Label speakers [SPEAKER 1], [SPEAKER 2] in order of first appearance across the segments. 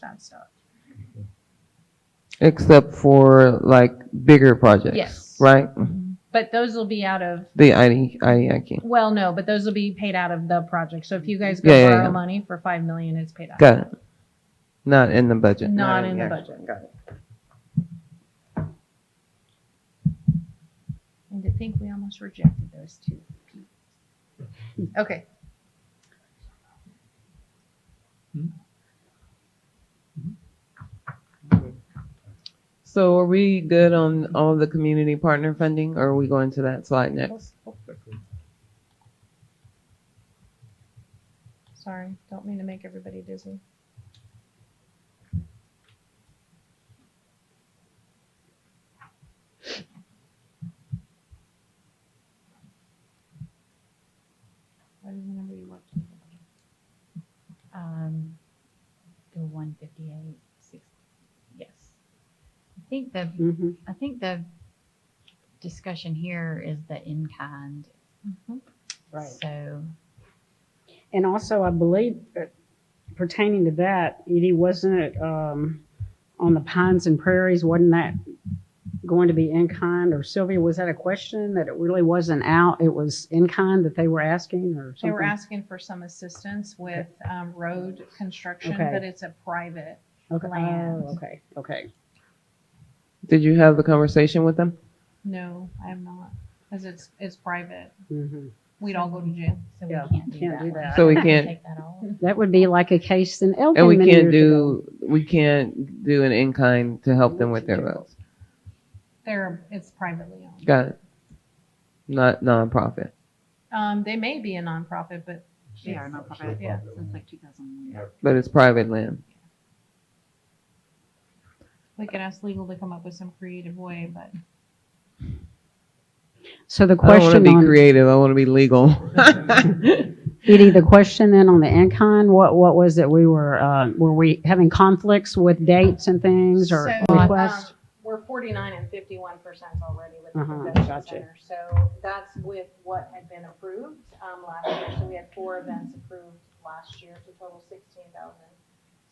[SPEAKER 1] that stuff.
[SPEAKER 2] Except for like bigger projects.
[SPEAKER 1] Yes.
[SPEAKER 2] Right?
[SPEAKER 1] But those will be out of,
[SPEAKER 2] The ID, IDIQ.
[SPEAKER 1] well, no, but those will be paid out of the project. So if you guys go
[SPEAKER 2] Yeah, yeah,
[SPEAKER 1] borrow
[SPEAKER 2] yeah.
[SPEAKER 1] money for five million, it's paid out.
[SPEAKER 2] Got it. Not in the budget.
[SPEAKER 1] Not in the
[SPEAKER 2] actual-
[SPEAKER 1] budget.
[SPEAKER 2] Got it.
[SPEAKER 1] And to think we almost rejected those two. Okay.
[SPEAKER 2] So are we good on all the community partner funding or are we going to that slide next?
[SPEAKER 1] Sorry, don't mean to make everybody dizzy. What is the number you worked on?
[SPEAKER 3] Um, the one fifty-eight, six, yes. I think the,
[SPEAKER 2] Mm-hmm.
[SPEAKER 3] I think the discussion here is the in-kind. So,
[SPEAKER 4] And also, I believe uh, pertaining to that, Edie, wasn't it um, on the pines and prairies? Wasn't that going to be in kind? Or Sylvia, was that a question that it really wasn't out? It was in kind that they were asking or something?
[SPEAKER 1] They were asking for some assistance with um, road construction,
[SPEAKER 4] Okay.
[SPEAKER 1] but it's a private.
[SPEAKER 4] Okay.
[SPEAKER 1] land.
[SPEAKER 4] Oh, okay. Okay.
[SPEAKER 2] Did you have the conversation with them?
[SPEAKER 1] No, I'm not, because it's, it's private.
[SPEAKER 4] hmm
[SPEAKER 1] We'd all go to jail.
[SPEAKER 3] so we
[SPEAKER 4] Yeah,
[SPEAKER 3] can't do
[SPEAKER 4] can't
[SPEAKER 3] that.
[SPEAKER 4] do
[SPEAKER 3] one.
[SPEAKER 4] that.
[SPEAKER 2] So we
[SPEAKER 3] Can
[SPEAKER 2] can't-
[SPEAKER 3] Take that off.
[SPEAKER 4] That would be like a case in Elgin.
[SPEAKER 2] And we
[SPEAKER 4] many
[SPEAKER 2] can't
[SPEAKER 4] years ago.
[SPEAKER 2] do, we can't do an in-kind to help them with their roads.
[SPEAKER 1] They're, it's privately owned.
[SPEAKER 2] Got it. Not nonprofit.
[SPEAKER 1] Um, they may be a nonprofit, but
[SPEAKER 3] They are nonprofit
[SPEAKER 1] Yeah.
[SPEAKER 3] since like two thousand one.
[SPEAKER 2] But it's private land.
[SPEAKER 1] we could ask legal to come up with some creative way, but
[SPEAKER 4] So the
[SPEAKER 2] I don't want to
[SPEAKER 4] question
[SPEAKER 2] be
[SPEAKER 4] on,
[SPEAKER 2] creative. I want to be legal.
[SPEAKER 4] Edie, the question then on the in kind, what, what was it? We were, uh, were we having conflicts with dates and things or
[SPEAKER 1] So,
[SPEAKER 4] requests?
[SPEAKER 1] um, We're forty-nine and fifty-one percent already with the
[SPEAKER 4] Uh-huh,
[SPEAKER 1] convention
[SPEAKER 4] gotcha.
[SPEAKER 1] center. So that's with what had been approved um, last year. So we had four events approved last year to total sixteen thousand.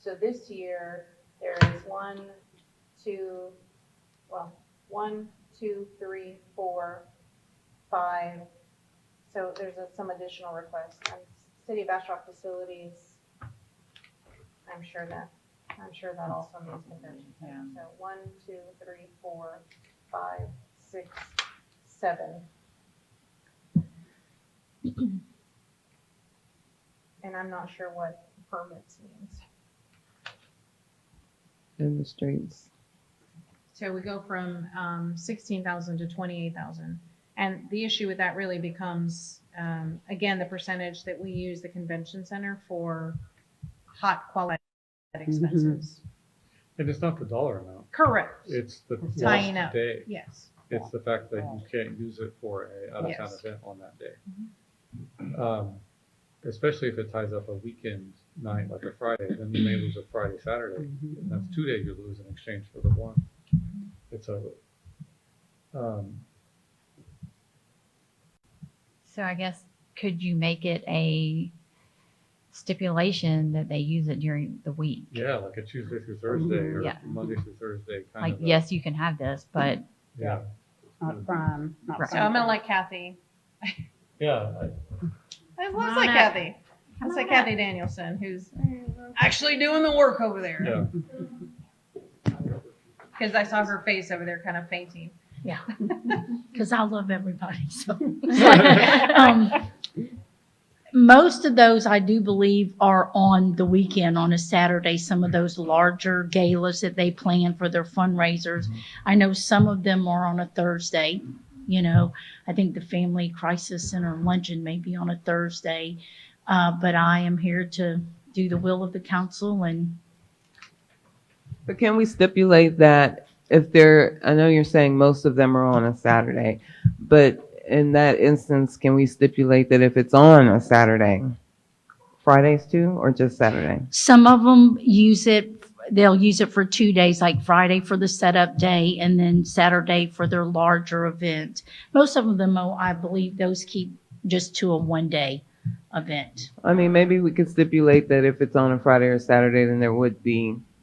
[SPEAKER 1] So this year, there is one, two, well, one, two, three, four, five. So there's a- some additional requests. And City of Bastrop Facilities, I'm sure that, I'm sure that also means convention center. So one, two, three, four, five, six, seven. And I'm not sure what permits means.
[SPEAKER 2] In the streets.
[SPEAKER 1] So we go from um, 16,000 to 28,000. And the issue with that really becomes, um, again, the percentage that we use the convention center for hot quality expenses.
[SPEAKER 5] And it's not the dollar amount,
[SPEAKER 1] Correct.
[SPEAKER 5] it's the
[SPEAKER 1] Tying
[SPEAKER 5] lost
[SPEAKER 1] up.
[SPEAKER 5] day.
[SPEAKER 1] Yes.
[SPEAKER 5] It's the fact that you can't use it for a out-of-town
[SPEAKER 1] Yes.
[SPEAKER 5] event on that day. Um, Especially if it ties up a weekend night like a Friday, then you may lose a Friday,
[SPEAKER 1] um,
[SPEAKER 5] Saturday.
[SPEAKER 4] Mm-hmm.
[SPEAKER 5] And that's two days you lose in exchange for the one. It's a, um,
[SPEAKER 3] So I guess, could you make it a stipulation that they use it during the week?
[SPEAKER 5] yeah, like a Tuesday through Thursday or
[SPEAKER 3] Yeah.
[SPEAKER 5] Monday through Thursday kind
[SPEAKER 3] Like,
[SPEAKER 5] of. a-
[SPEAKER 3] yes, you can have this, but
[SPEAKER 5] Yeah,
[SPEAKER 4] Not prime, not
[SPEAKER 3] Right.
[SPEAKER 1] So I'm going
[SPEAKER 4] prime.
[SPEAKER 1] to let Kathy.
[SPEAKER 5] yeah, I-
[SPEAKER 1] I
[SPEAKER 3] Come
[SPEAKER 1] was
[SPEAKER 3] on
[SPEAKER 1] like
[SPEAKER 3] up.
[SPEAKER 1] Kathy. I was
[SPEAKER 3] on
[SPEAKER 1] like
[SPEAKER 3] up.
[SPEAKER 1] Kathy Danielson, who's actually doing the work over there.
[SPEAKER 5] yeah.
[SPEAKER 1] Because I saw her face over there kind of fainting.
[SPEAKER 6] because I love everybody. So, um, most of those I do believe are on the weekend, on a Saturday. Some of those larger galas that they plan for their fundraisers. I know some of them are on a Thursday. You know, I think the Family Crisis Center luncheon may be on a Thursday, uh, but I am here to do the will of the council and
[SPEAKER 2] But can we stipulate that if they're, I know you're saying most of them are on a Saturday, but in that instance, can we stipulate that if it's on a Saturday, Fridays too, or just Saturday?
[SPEAKER 6] Some of them use it, they'll use it for two days, like Friday for the setup day and then Saturday for their larger event. Most of them, though, I believe those keep just to a one-day event.
[SPEAKER 2] I mean, maybe we could stipulate that if it's on a Friday or Saturday, then there would be